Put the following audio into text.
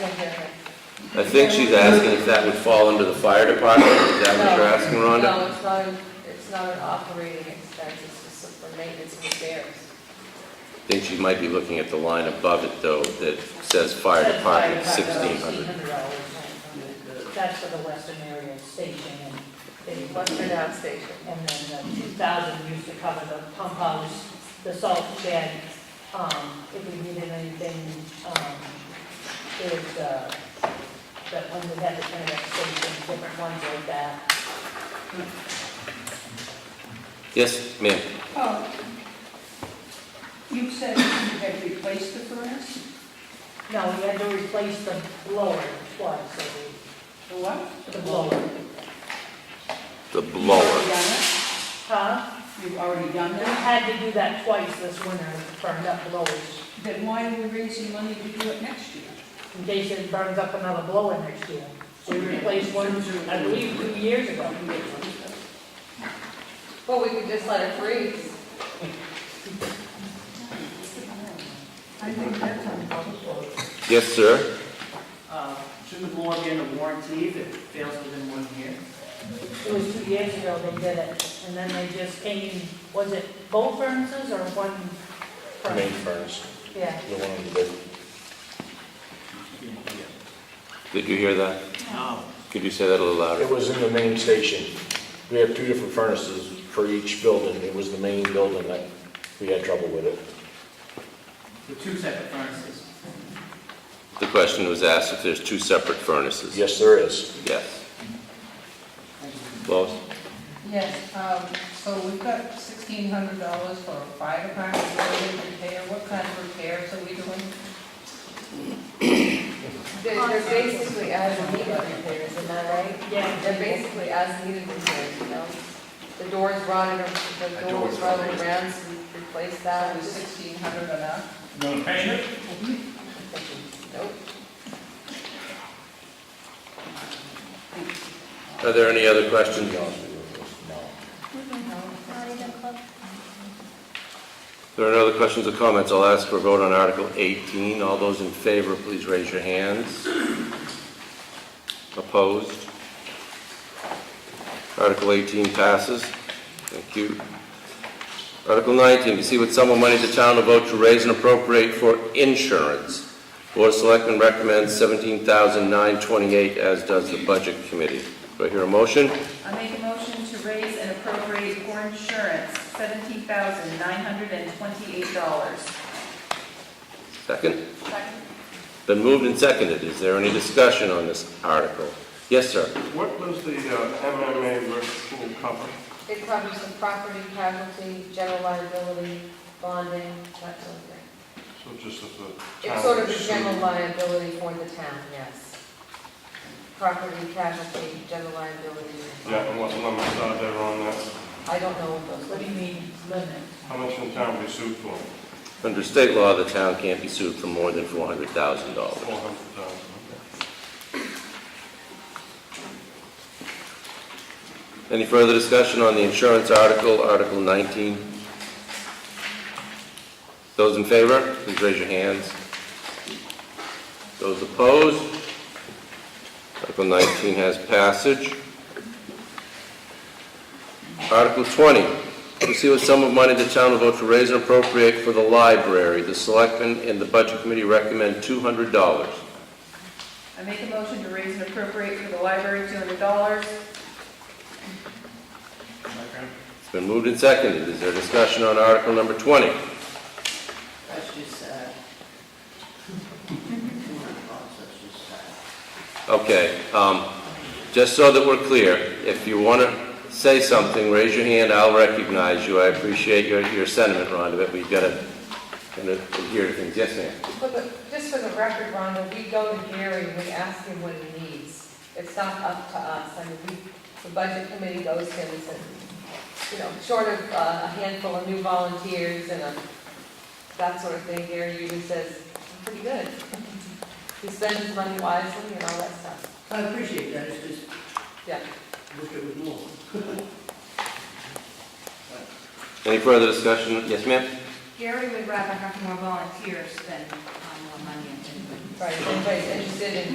I think she's asking if that would fall under the fire department, is that what you're asking, Rhonda? No, it's not, an- it's not an operating expense, it's just for maintenance and repairs. I think she might be looking at the line above it, though, that says fire department, sixteen hundred. $1,600. That's for the western area station, and it What's was, your down station? and then the two thousand used to cover the pump house, the salt shed, um, if we needed anything, um, is, uh, that when we had the internet station, different ones like that. Yes, ma'am, Oh, You said you had replaced the furnace? No, we had to replace the blower twice, so The what? we, the blower. the You've blower. already done Huh? it? You've already done We that? had to do that twice this winter, burned up blowers. Then why are we raising money to do it next year? in case it burns up another blower next year. So we replaced one, I believe, two years ago. Well, we could just let it freeze. I think that's uncomfortable. Yes, sir? Uh, Shouldn't the blower be under warranty if it fails within one year? It was two years ago they did it, and then they just came, was it both furnaces or one main furnace? furnace, Yeah. the one on the big. Did you hear that? No. Could you say that a little It louder? was in the main station. We have two different furnaces for each building. It was the main building that we had trouble with it. The two separate furnaces. The question was asked if there's two separate furnaces. Yes, there is. Yes. Lois? Yes, um, so we've got sixteen hundred dollars for a fire department building repair, what kind of repairs are we doing? They're they're basically as needed repairs, isn't that right? Yeah. They're basically as needed repairs, you know? The doors rotted, or the doors rotted around, so we replaced That that. was sixteen hundred enough? Nope. Are there any other questions? If there are no other questions or comments, I'll ask for a vote on Article 18. All those in favor, please raise your hands. Opposed? Article 18 passes. Thank you. Article 19, to see what sum of money the town will vote to raise and appropriate for insurance. Board of Selectmen recommends 17928 as does the Budget Committee. Do I hear a motion? I make a motion to raise and appropriate for insurance seventeen thousand nine hundred and twenty-eight dollars. Second? Been moved and seconded. Is there any discussion on this article? Yes, sir. What was the uh, MMA versus pool cover? It covers the property, casualty, general liability, bonding, that sort of thing. So just as a town. It's sort of a suit. general liability for the town, yes. Property, casualty, general liability. Yeah, and what limits are there on that? I don't know what those, What do you mean, limit? How much in town we sued for? Under state law, the town can't be sued for more than $400,000. Four hundred thousand. Any further discussion on the insurance article, Article 19? Those in favor, please raise your hands. Those opposed? Article 19 has passage. Article 20, to see what sum of money the town will vote to raise and appropriate for the library. The selectmen and the budget committee recommend $200. I make a motion to raise and appropriate for the library two hundred dollars. Okay. It's been moved and seconded. Is there discussion on Article number 20? That's just sad. That's just sad. Okay, um, just so that we're clear, if you want to say something, raise your hand, I'll recognize you. I appreciate your, your sentiment, Rhonda, but we've got to, kind of adhere to things. Yes, ma'am? for the, just for the record, Rhonda, we go to Gary and we ask him what he needs. It's not up to us. I mean, we, the budget committee goes to him and says, you know, short of uh, a handful of new volunteers and a, that sort of thing, Gary usually says, I'm pretty good. He spends his money wisely and all that stuff. I appreciate that, it's just, Yeah. wish it was more. Any further discussion? Yes, ma'am? Gary would rather have more volunteers than um, more money in the budget. Right, if anybody's interested in